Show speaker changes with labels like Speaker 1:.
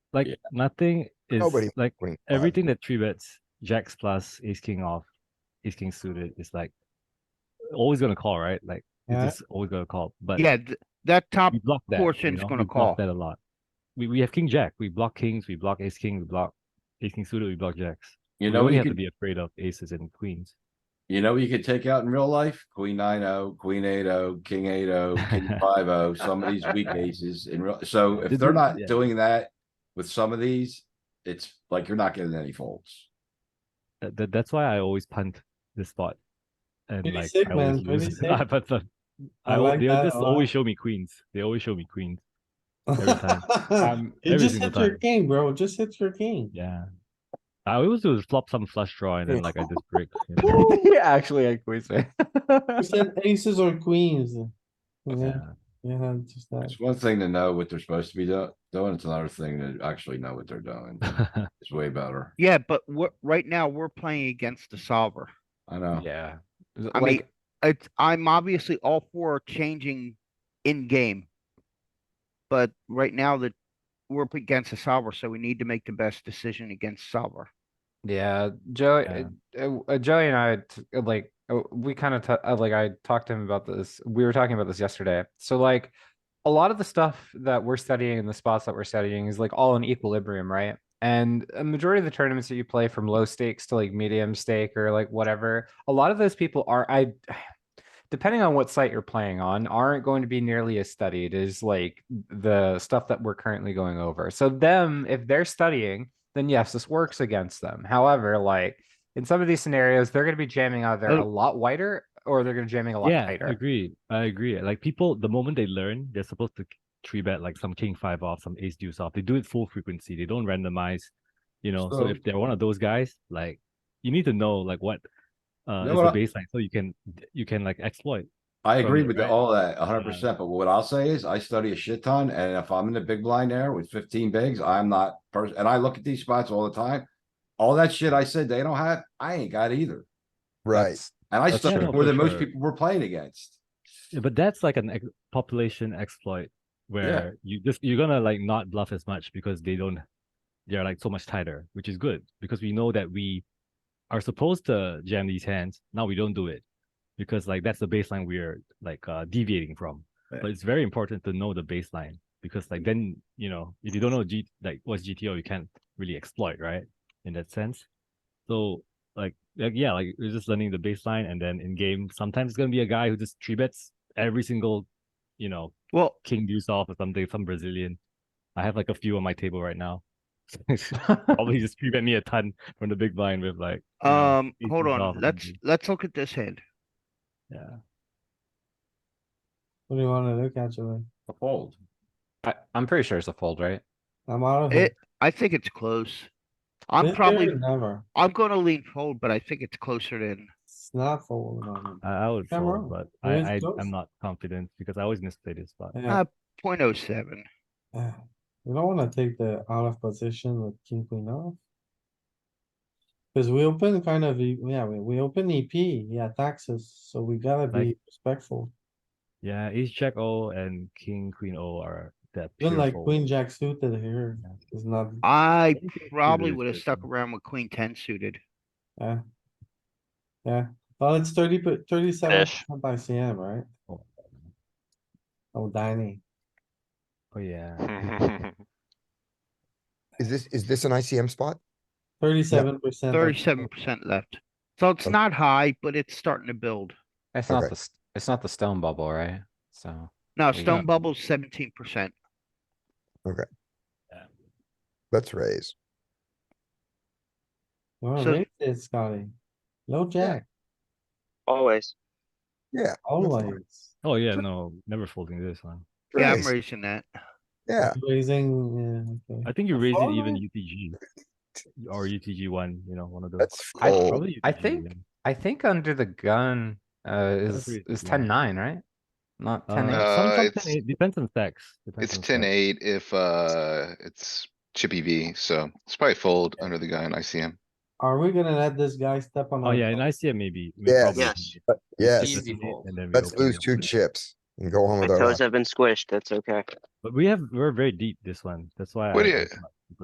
Speaker 1: Like
Speaker 2: Yeah.
Speaker 1: nothing is
Speaker 3: Nobody
Speaker 1: like
Speaker 3: queen five.
Speaker 1: everything that three bets jacks plus ace king off, ace king suited is like always gonna call, right? Like
Speaker 4: Yeah.
Speaker 1: it's just always gonna call. But
Speaker 5: um, Yeah, th- that top
Speaker 1: we block that.
Speaker 5: portion's
Speaker 1: you know?
Speaker 5: gonna
Speaker 1: we block
Speaker 5: call.
Speaker 1: that a lot. We we have king jack. We block kings. We block ace king. We block ace king suited. We block jacks.
Speaker 2: You
Speaker 1: we
Speaker 2: know,
Speaker 1: only
Speaker 2: you
Speaker 1: have to
Speaker 2: could,
Speaker 1: be afraid of aces and queens.
Speaker 2: you know, you could take out in real life, queen nine oh, queen eight oh, king eight oh, king five oh, some of these weak aces in real, so if
Speaker 1: Did
Speaker 2: they're
Speaker 1: you-
Speaker 2: not
Speaker 1: yeah.
Speaker 2: doing that. With some of these, it's like you're not getting any folds.
Speaker 1: That, that- that's why I always punt this spot. And like
Speaker 4: 26,
Speaker 1: I always
Speaker 4: man,
Speaker 1: lose.
Speaker 4: 26.
Speaker 1: I punt them.
Speaker 4: I
Speaker 1: I, al-
Speaker 4: like
Speaker 1: they
Speaker 4: that
Speaker 1: just
Speaker 4: a lot.
Speaker 1: always show me queens. They always show me queens. every time.
Speaker 4: Um, You
Speaker 1: every
Speaker 4: just
Speaker 1: single
Speaker 4: hit your
Speaker 1: time.
Speaker 4: king, bro, just hit your king.
Speaker 1: Yeah. I always do is flop some flush draw and then like I just break. you know?
Speaker 3: Actually, I quit
Speaker 4: You said aces or queens. Yeah,
Speaker 1: Yeah.
Speaker 4: yeah, just that.
Speaker 2: It's one thing to know what they're supposed to be do- doing, it's another thing to actually know what they're doing. It's way better.
Speaker 5: yeah, but we're right now we're playing against the solver.
Speaker 2: I know.
Speaker 3: Yeah.
Speaker 5: Oh. I mean, it's I'm obviously all for changing in game. But right now that we're up against the solver, so we need to make the best decision against solver.
Speaker 6: Yeah, Joey,
Speaker 1: Yeah.
Speaker 6: uh, uh, Joey and I, t- uh, like, uh, we kind of, uh like, I talked to him about this. We were talking about this yesterday. So, like, a lot of the stuff that we're studying and the spots that we're studying is like all in equilibrium, right? And a majority of the tournaments that you play from low stakes to like medium stake or like whatever, a lot of those people are, I, depending on what site you're playing on, aren't going to be nearly as studied as like the stuff that we're currently going over. So, them, if they're studying, then yes, this works against them. However, like in some of these scenarios, they're going to be jamming either a
Speaker 1: Oh.
Speaker 6: lot wider or they're going to be jamming a lot
Speaker 1: yeah, I
Speaker 6: tighter.
Speaker 1: agree. I agree. Like people, the moment they learn, they're supposed to three bet like some king five off, some ace deuce off. They do it full frequency. They don't randomize. You know, so,
Speaker 2: So-
Speaker 1: if they're one of those guys, like you need to know like what uh
Speaker 2: You know
Speaker 1: is
Speaker 2: what
Speaker 1: the
Speaker 2: I-
Speaker 1: baseline so you can you can like exploit.
Speaker 2: I
Speaker 1: from
Speaker 2: agree
Speaker 1: it,
Speaker 2: with
Speaker 1: right?
Speaker 2: all that hundred percent, but what I'll say is I study a shit ton and if I'm in the big blind there with fifteen bigs, I'm not person, and I look at these spots all the time. All that shit I said they don't have, I ain't got either.
Speaker 3: Right.
Speaker 6: That's-
Speaker 2: And I
Speaker 6: That's
Speaker 2: studied
Speaker 1: true.
Speaker 2: more than most
Speaker 1: Sure.
Speaker 2: people we're playing against.
Speaker 1: Yeah, But that's like an ex- population exploit where you just you're gonna like not bluff as much because they don't they're like so much tighter, which is good because we know that we are supposed to jam these hands. Now we don't do it because like that's the baseline we're like uh, deviating from. But it's very important to know the baseline because like then you know if you don't know G like what's GTO, you can't really exploit right in that sense. So like, like yeah, like we're just learning the baseline, and then in game sometimes it's gonna be a guy who just three bets every single, you know,
Speaker 5: Well,
Speaker 1: king deuce off or something, some Brazilian. I have like a few on my table right now. Probably just three bet me a ton from the big blind with like. you know,
Speaker 5: um,
Speaker 1: ace
Speaker 5: hold
Speaker 1: deuce off
Speaker 5: on,
Speaker 1: or
Speaker 5: let's
Speaker 1: something.
Speaker 5: let's look at this hand.
Speaker 1: Yeah,
Speaker 4: What do you wanna look at, Joey?
Speaker 2: A fold.
Speaker 6: I, I'm pretty sure it's a fold, right?
Speaker 4: I'm out of here.
Speaker 5: It, I think it's close. I'm
Speaker 4: This
Speaker 5: probably,
Speaker 4: year, Never,
Speaker 5: I'm gonna lean fold, but I think it's closer than,
Speaker 4: it's not fold. man.
Speaker 1: I, I would
Speaker 4: Yeah,
Speaker 1: fold,
Speaker 4: bro.
Speaker 1: but I, I
Speaker 4: It's close.
Speaker 1: I'm not confident because I always misplay this spot.
Speaker 4: Yeah,
Speaker 5: point oh seven.
Speaker 4: yeah. You don't wanna take the out of position with king queen off. Cause we open kind of, E- yeah, we, we open EP, yeah, taxes, so we gotta be
Speaker 1: Like-
Speaker 4: respectful.
Speaker 1: Yeah, ace jack O and king queen O are that.
Speaker 4: Even
Speaker 1: pure
Speaker 4: like
Speaker 1: fold.
Speaker 4: queen jack suited here
Speaker 1: Yeah.
Speaker 4: is not,
Speaker 5: I
Speaker 1: Queen king suited
Speaker 5: probably
Speaker 1: is
Speaker 5: would have
Speaker 1: good,
Speaker 5: stuck
Speaker 1: though.
Speaker 5: around with queen ten suited.
Speaker 4: yeah. Yeah, well, it's thirty, but thirty-seven
Speaker 7: Ish.
Speaker 4: ICM, right?
Speaker 1: Oh.
Speaker 4: Oh, Danny,
Speaker 1: Oh yeah.
Speaker 7: Hmm.
Speaker 3: Is this, is this an ICM spot?
Speaker 4: thirty-seven percent.
Speaker 5: Thirty-seven percent left. So it's
Speaker 3: Okay.
Speaker 5: not high, but it's starting to build.
Speaker 6: It's
Speaker 3: Okay.
Speaker 6: not the st- it's not the stone bubble, right? So
Speaker 5: Now,
Speaker 6: There you go.
Speaker 5: stone bubble's seventeen percent.
Speaker 3: Let's raise.
Speaker 4: Well,
Speaker 5: So-
Speaker 4: raise it, Scotty. Low jack,
Speaker 7: Always.
Speaker 3: Yeah.
Speaker 4: always.
Speaker 1: Oh yeah, no, never folding this one.
Speaker 5: Yeah, I'm
Speaker 3: raise.
Speaker 5: raising that.
Speaker 3: Yeah,
Speaker 4: Raising, yeah, okay.
Speaker 1: I think you raised it even
Speaker 3: fold?
Speaker 1: UTG or UTG one, you know, one of those.
Speaker 3: that's
Speaker 6: I-
Speaker 3: fold.
Speaker 1: Probably
Speaker 6: I
Speaker 1: UTG,
Speaker 6: think-
Speaker 1: yeah.
Speaker 6: I think under the gun uh, is
Speaker 1: agree,
Speaker 6: is
Speaker 1: yeah.
Speaker 6: ten nine, right? Not ten eight.
Speaker 1: Uh,
Speaker 7: Uh,
Speaker 1: some- some
Speaker 7: it's-
Speaker 1: 10-8 depends on stacks. depends
Speaker 7: It's
Speaker 1: on
Speaker 7: ten
Speaker 1: stacks.
Speaker 7: eight if, uh, it's chippy V, so it's probably fold under the gun, I see him.
Speaker 4: Are we gonna let this guy step on?
Speaker 1: Oh
Speaker 4: our
Speaker 3: Um,
Speaker 1: yeah, and
Speaker 4: toes?
Speaker 1: I see it maybe. may-
Speaker 3: Yes.
Speaker 1: probably
Speaker 8: Yes.
Speaker 1: 10-8,
Speaker 3: But yes,
Speaker 8: Easy
Speaker 1: 10-8,
Speaker 8: fold.
Speaker 1: and then we
Speaker 3: let's
Speaker 1: open
Speaker 3: lose
Speaker 1: up
Speaker 3: two
Speaker 1: with-
Speaker 3: chips and go home
Speaker 8: My
Speaker 3: with our.
Speaker 8: toes
Speaker 3: lives.
Speaker 8: have been squished, that's okay.
Speaker 1: But we have, we're very deep this one, that's why. I-
Speaker 7: What do you-
Speaker 1: I'm not